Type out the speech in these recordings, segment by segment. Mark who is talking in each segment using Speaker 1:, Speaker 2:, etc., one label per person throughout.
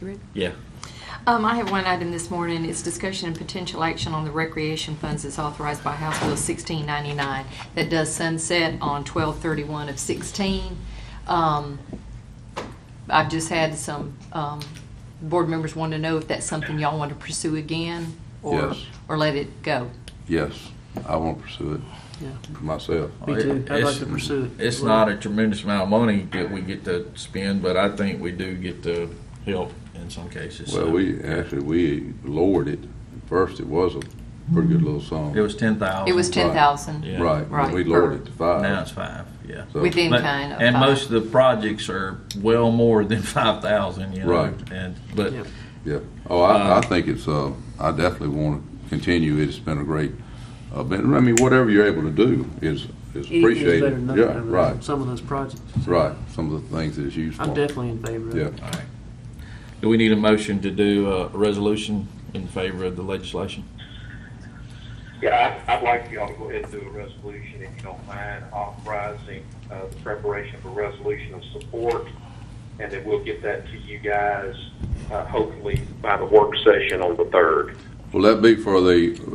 Speaker 1: You ready?
Speaker 2: Yeah.
Speaker 1: Um, I have one item this morning. It's discussion and potential action on the recreation funds that's authorized by House Bill 1699 that does sunset on 12/31 of 16. Um, I've just had some um, board members want to know if that's something y'all want to pursue again or,
Speaker 3: Yes.
Speaker 1: or let it go.
Speaker 3: Yes, I want to pursue it
Speaker 4: Yeah.
Speaker 3: for myself.
Speaker 4: Me too. I'd like
Speaker 2: It's-
Speaker 4: to pursue it.
Speaker 2: It's not a tremendous amount of money that we get to spend, but I think we do get to help in some cases.
Speaker 3: Well,
Speaker 2: So,
Speaker 3: we, actually, we lowered it. First, it was a pretty good little song.
Speaker 2: It was ten thousand.
Speaker 1: It was 10,000
Speaker 2: Yeah.
Speaker 3: Right,
Speaker 1: Right.
Speaker 3: and we lowered it to
Speaker 2: Now it's
Speaker 3: five.
Speaker 2: five, yeah.
Speaker 3: So-
Speaker 1: within
Speaker 2: But-
Speaker 1: kind of.
Speaker 2: And
Speaker 1: five.
Speaker 2: most of the projects are well more than five thousand, you know.
Speaker 3: Right.
Speaker 2: And, but,
Speaker 4: Yeah.
Speaker 3: Yeah. Oh, I, I think it's, uh, I definitely want to continue it. It's been a great, uh, been- I mean, whatever you're able to do is, is
Speaker 4: Anything's
Speaker 3: appreciated.
Speaker 4: better than nothing
Speaker 3: Yeah,
Speaker 4: over there,
Speaker 3: right,
Speaker 4: Some of those projects.
Speaker 3: right. Some of the things that it's used for.
Speaker 4: I'm definitely in favor of
Speaker 3: Yeah.
Speaker 4: it.
Speaker 2: all right. Do we need a motion to do a resolution in favor of the legislation?
Speaker 5: Yeah, I- I'd like y'all to go ahead and do a resolution, if you don't mind, authorizing uh, the preparation of a resolution of support, and then we'll get that to you guys, uh, hopefully by the work session on the 3rd.
Speaker 3: Will that be for the,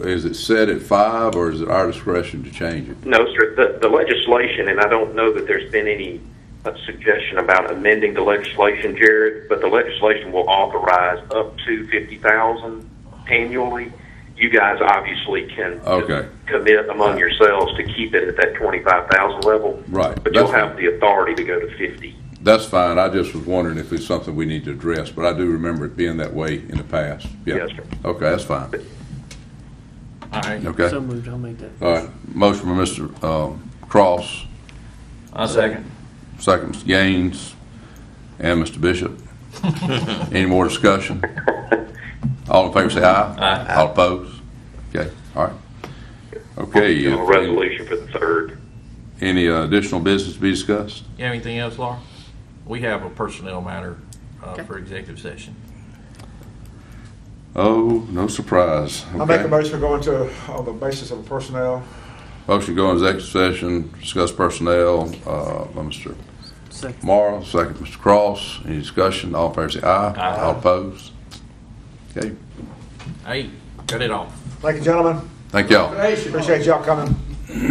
Speaker 3: is it set at five or is it our discretion to change it?
Speaker 5: No, sir, the the legislation, and I don't know that there's been any uh, suggestion about amending the legislation, Jared, but the legislation will authorize up to 50,000 annually. You guys obviously can
Speaker 3: Okay.
Speaker 5: commit among yourselves to keep it at that 25,000 level.
Speaker 3: Right.
Speaker 5: But you'll
Speaker 3: That's
Speaker 5: have
Speaker 3: fine.
Speaker 5: the authority to go to 50.
Speaker 3: That's fine. I just was wondering if it's something we need to address, but I do remember it being that way in the past. Yeah.
Speaker 5: Yes, sir.
Speaker 3: Okay, that's fine.
Speaker 2: All right,
Speaker 3: Okay.
Speaker 4: So moved, I'll make that.
Speaker 3: All right. Motion by Mr. um, Cross,
Speaker 2: I'll second.
Speaker 3: second Mr. Gaines, and Mr. Bishop. Any more discussion? All in favor, say aye.
Speaker 2: Aye.
Speaker 3: All opposed? Okay, all right. Okay.
Speaker 5: You know, A
Speaker 3: if-
Speaker 5: resolution for the third.
Speaker 3: Any uh, additional business to be discussed?
Speaker 2: You have anything else, Laura? We have a personnel matter uh, for executive session.
Speaker 3: Oh, no surprise.
Speaker 6: I make a
Speaker 3: Okay.
Speaker 6: motion to go into, on the basis of personnel.
Speaker 3: Motion to go into executive session, discuss personnel, uh, by Mr.
Speaker 4: Second.
Speaker 3: Morrow, second Mr. Cross. Any discussion? All in favor say aye.
Speaker 2: Aye.
Speaker 3: All opposed? Okay,
Speaker 2: Hey, cut it off.
Speaker 6: Thank you, gentlemen.
Speaker 3: thank y'all.
Speaker 6: Appreciate y'all coming.